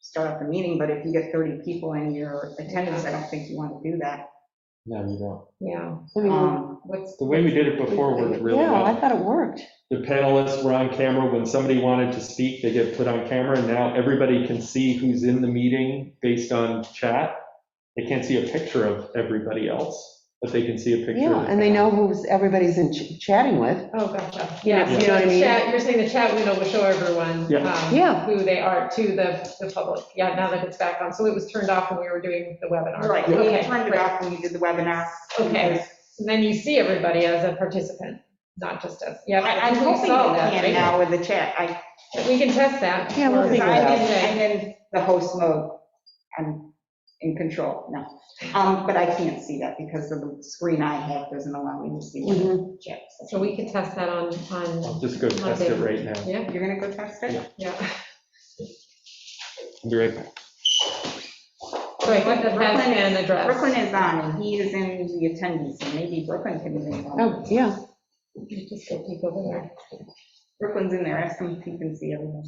start off the meeting, but if you get 30 people in your attendance, I don't think you want to do that. No, you don't. Yeah. Um, What's The way we did it before worked really Yeah, I well. thought it worked. The panelists were on camera. When somebody wanted to speak, they get put on camera. and Now everybody can see who's in the meeting based on chat. They can't see a picture of everybody else, but they can see a picture. Yeah, of the and they know panel. who's, everybody's in ch- chatting with. Oh, gotcha. Yeah, Yeah, you you know what I mean? chat, you're saying the chat window will show everyone. Yeah. um, Yeah. Who they are to the, the public. Yeah, now that it's back on. So it was turned off when we were doing the webinar. Right, we Okay, turned it great. off when we did the webinar. Okay. So then you see everybody as a participant, not just as, yeah. I- I'm we hoping you saw that, can right? now with the chat. I We can test that. Yeah, we'll Or- Because figure it I'm out. in, I'm in the host mode, I'm in control, no. Um, But I can't see that because of the screen I have doesn't allow me to see what Mhm. the chat. says. So we can test that on, on, I'll just go test it right now. yeah, You're gonna go test it? yeah. Be right back. So I think that that Brooklyn can is- Brooklyn address. is on, and he is in the attendees, and maybe Brooklyn can be involved. Oh, yeah. Just go peek over there. Brooklyn's in there, ask him if he can see everyone.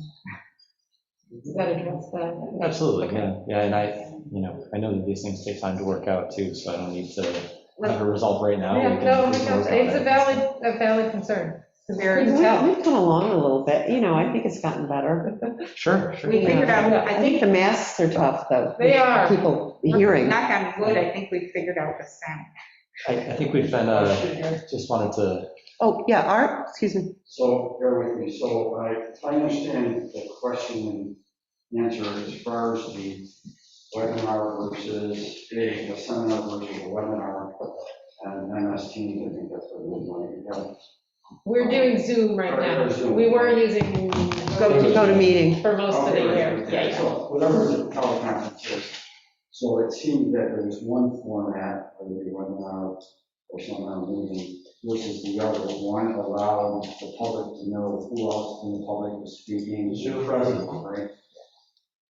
Does that address that? Absolutely, yeah, yeah, and I, you know, I know that these things take time to work out too, so I don't need to have a Let's- result right now. Yeah, We can- no, we can work on it's a it. valid, a valid concern. There We've is- we've come along a little bit, you know, I think it's gotten better. Sure, sure. We figured out, I I think the think, masks are tough, though. They are. People hearing. knock on wood, I think we figured out the sound. I, I think we've been, uh, just wanted to, Oh, yeah, Art, excuse me. So bear with me. So I, if I understand the question and answer as far as the webinar versus a a seminar versus a webinar uh, and MS Teams, I think that's what we're doing. We're doing Zoom right now. We were using Go to, go to meeting. for most of the year. Yeah, yeah. Oh, So whatever the teleconference is. So it seemed that there was one format of the webinar or seminar meeting versus the other. One allowed the public to know who else in the public was speaking, who present, right?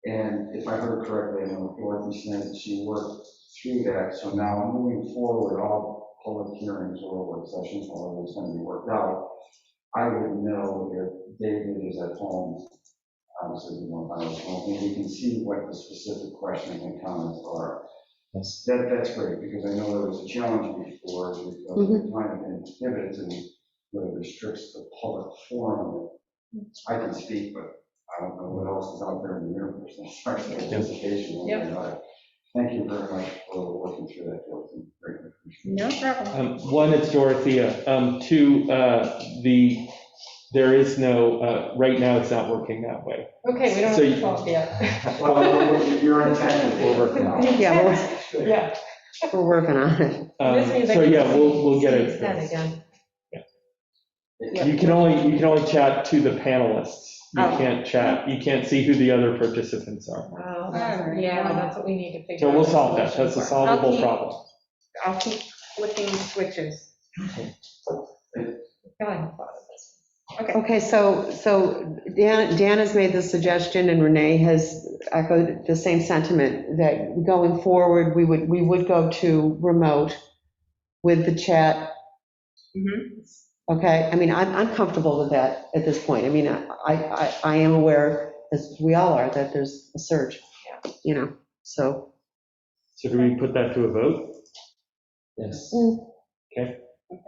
And if I heard correctly, I know Dorothy said she worked through that. So now moving forward, all public hearings or work sessions, all of it's going to be worked out. I would know if David is at home obviously, we don't have a phone, and we can see what the specific questions and comments are. yes, That, that's great, because I know there was a challenge before, because the time and inhibits and really restricts the public forum. I can speak, but I don't know what else is out there in the universe, as far as participation. Yep. Thank you very much for working through that, Dorothy. Greatly appreciate it. No problem. Um, One, it's Dorothea. Um, Two, uh, the, there is no, uh, right now, it's not working that way. Okay, we don't have So you- to talk yet. Well, you're in tech, we'll work it out. Yeah, we're, Yeah. we're working on it. Um, This means I So, can yeah, we'll, we'll get see it. that again. You can only, you can only chat to the panelists. You Oh. can't chat, you can't see who the other participants are. Wow, Alright. yeah, that's what we need to figure So out. we'll solve that, that's a solvable Okay. problem. I'll keep flicking switches. God, I haven't thought of this. Okay, so, so Dan, Dan has made the suggestion and Renee has echoed the same sentiment that going forward, we would, we would go to remote with the chat. Mm-hmm. Okay, I mean, I'm, I'm comfortable with that at this point. I mean, I, I, I am aware, as we all are, that there's a surge, you know, so. So do we put that to a vote? yes.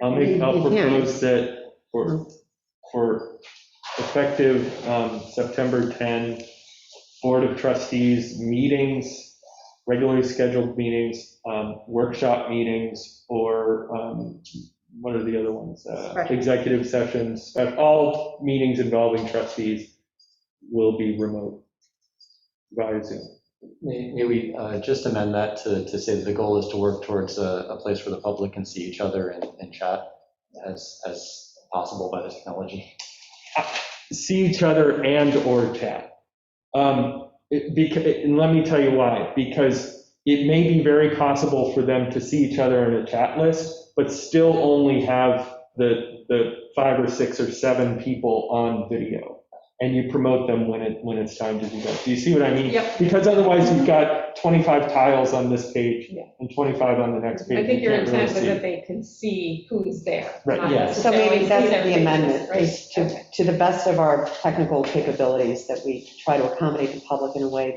I'll make, I'll You can. propose that for, for effective um, September 10, Board of Trustees meetings, regularly scheduled meetings, um, workshop meetings, or um, what are the other ones? Uh, Special. Executive sessions, but all meetings involving trustees will be remote via Zoom. May may we uh, just amend that to, to say that the goal is to work towards a, a place where the public can see each other and, and chat as, as possible by the technology? see each other and/or chat. Um, it- beca- And let me tell you why, because it may be very possible for them to see each other in a chat list, but still only have the, the five or six or seven people on video. And you promote them when it, when it's time to do that. Do you see what I mean? Yep. Because otherwise you've got 25 tiles on this page Yeah. and 25 on the next page. I think You your can't really intent was see. that they could see who's there. Right, not yeah. So maybe necessarily that's see the everything, amendment, right? is Okay. to, to the best of our technical capabilities, that we try to accommodate the public in a way